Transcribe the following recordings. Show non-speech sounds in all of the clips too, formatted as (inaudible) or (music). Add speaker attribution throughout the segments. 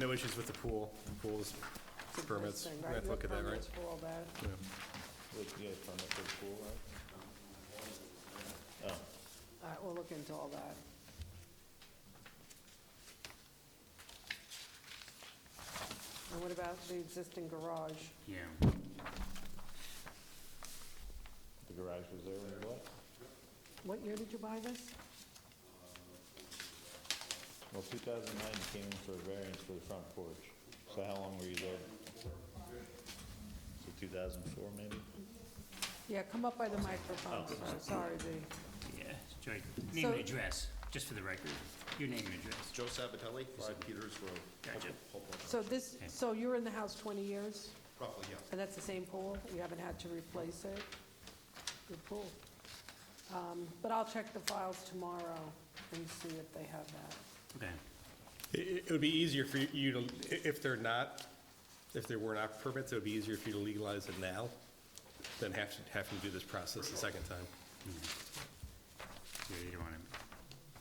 Speaker 1: No issues with the pool, the pool's permits, we have to look at that, right?
Speaker 2: Permits were all bad.
Speaker 3: With, yeah, from the first pool, right?
Speaker 2: All right, we'll look into all that. And what about the existing garage?
Speaker 4: Yeah.
Speaker 3: The garage was there when you bought?
Speaker 2: What year did you buy this?
Speaker 3: Well, 2009, you came in for a variance for the front porch. So how long were you there? So 2004, maybe?
Speaker 2: Yeah, come up by the microphone, sir. sorry, the,
Speaker 4: Yeah, sorry. Name
Speaker 2: So-
Speaker 4: and address, just for the record. Your name and address.
Speaker 5: Joe Sabatelli, 5 Peters Road.
Speaker 4: Gotcha.
Speaker 2: so this, so you were in the house 20 years,
Speaker 5: Roughly, yes.
Speaker 2: and that's the same pool? You haven't had to replace it? Good pool. Um, But I'll check the files tomorrow and see if they have that.
Speaker 4: Okay.
Speaker 1: It, it would be easier for you to, i- if they're not, if there were not permits, it would be easier for you to legalize it now than have to, having to do this process a second time.
Speaker 4: Yeah, you don't want to,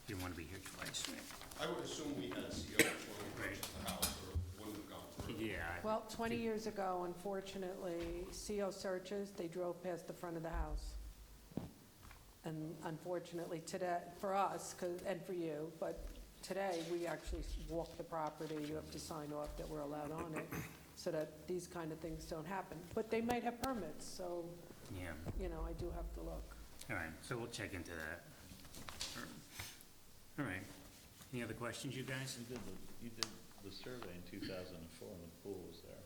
Speaker 4: you don't want to be here twice, right?
Speaker 5: I would assume we had CO before we purchased the house, or wouldn't have gone through.
Speaker 4: Yeah.
Speaker 2: Well, 20 years ago, unfortunately, CO searches, they drove past the front of the house. And unfortunately, today, for us, 'cause- and for you, but today, we actually walk the property, you have to sign off that we're allowed on it, so that these kind of things don't happen. But they might have permits, so,
Speaker 4: Yeah,
Speaker 2: you know, I do have to look.
Speaker 4: all right, so we'll check into that. All right. Any other questions, you guys?
Speaker 3: You did the, you did the survey in 2004 when the pool was there.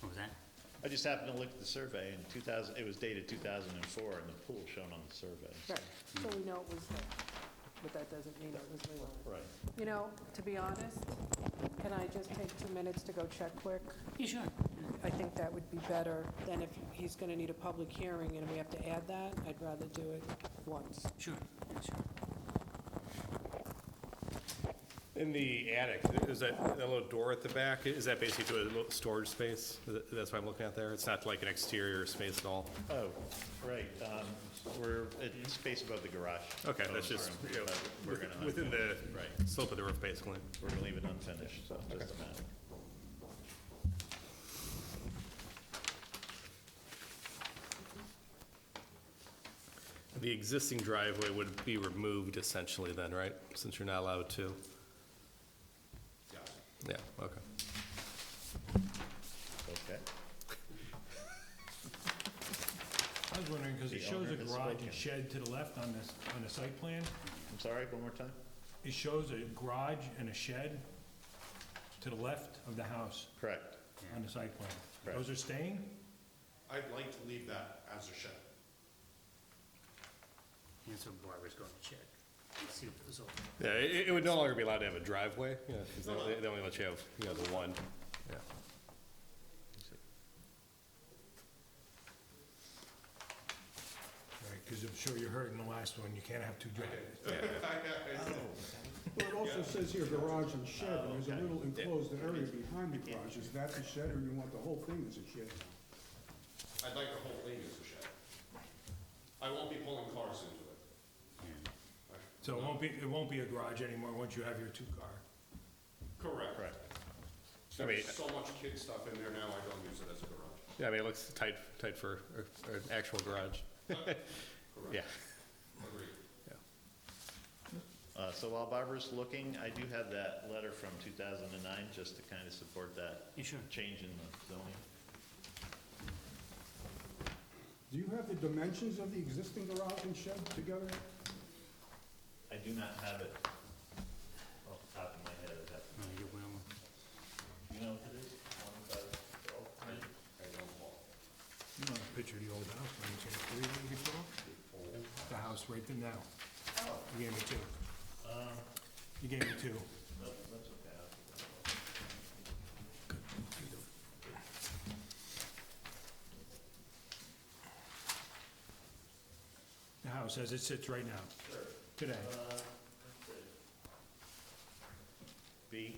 Speaker 4: What was that?
Speaker 3: I just happened to look at the survey in 2000, it was dated 2004 and the pool shown on the survey.
Speaker 2: Right, so we know it was there, but that doesn't mean it was legal.
Speaker 3: Right.
Speaker 2: You know, to be honest, can I just take two minutes to go check quick?
Speaker 4: Yeah, sure.
Speaker 2: I think that would be better than if he's going to need a public hearing and we have to add that. I'd rather do it once.
Speaker 4: Sure, yeah, sure.
Speaker 1: In the attic, is that, that little door at the back, is that basically a little storage space? Is that- That's what I'm looking at there? It's not like an exterior space at all?
Speaker 3: Oh, right, um, we're, it's space above the garage.
Speaker 1: Okay,
Speaker 3: Oh,
Speaker 1: that's just,
Speaker 3: sorry,
Speaker 1: you know,
Speaker 3: but We're gonna, un-
Speaker 1: within the
Speaker 3: Right.
Speaker 1: slope of the roof, basically.
Speaker 3: we're gonna leave it unfinished, so it doesn't matter.
Speaker 1: The existing driveway would be removed essentially then, right? Since you're not allowed to? Yeah, okay.
Speaker 3: Okay.
Speaker 6: I was wondering, because it
Speaker 3: The
Speaker 6: shows
Speaker 3: owner
Speaker 6: a
Speaker 3: has
Speaker 6: garage
Speaker 3: spoken.
Speaker 6: and shed to the left on this, on the site plan.
Speaker 3: I'm sorry, one more time?
Speaker 6: It shows a garage and a shed to the left of the house
Speaker 3: Correct.
Speaker 6: on the site plan.
Speaker 3: Correct.
Speaker 6: Those are staying?
Speaker 5: I'd like to leave that as a shed.
Speaker 4: And so Barbara's going to check, see if it's all.
Speaker 1: Yeah, it, it would no longer be allowed to have a driveway, yeah, 'cause they only- they only let you have, you know, the one, yeah.
Speaker 6: Right, because I'm sure you heard in the last one, you can't have two driveways.
Speaker 5: (laughs)
Speaker 7: Oh. Well, it also says here garage and shed,
Speaker 3: Oh,
Speaker 7: and there's a little enclosed area behind the garage. Is that the shed, or you want the whole thing as a shed?
Speaker 5: I'd like the whole thing as a shed. I won't be pulling cars into it.
Speaker 6: So it won't be, it won't be a garage anymore once you have your two-car.
Speaker 5: Correct.
Speaker 3: Correct.
Speaker 1: I mean-
Speaker 5: There's so much kid stuff in there now, I don't use it as a garage.
Speaker 1: Yeah, I mean, it looks tight, tight for, a- an actual garage. (laughs) Yeah.
Speaker 5: Agreed.
Speaker 3: Uh, so while Barbara's looking, I do have that letter from two thousand and nine, just to kind of support that
Speaker 4: Yeah, sure.
Speaker 3: change in the zoning.
Speaker 7: Do you have the dimensions of the existing garage and shed together?
Speaker 3: I do not have it off the top of my head, is that,
Speaker 4: Oh, you will.
Speaker 3: you know what it is? One by twelve, right?
Speaker 6: You know, the picture of the old house, when you take it, you can draw? The house right there now. You gave me two. You gave me two. The house as it sits right now, today.
Speaker 3: B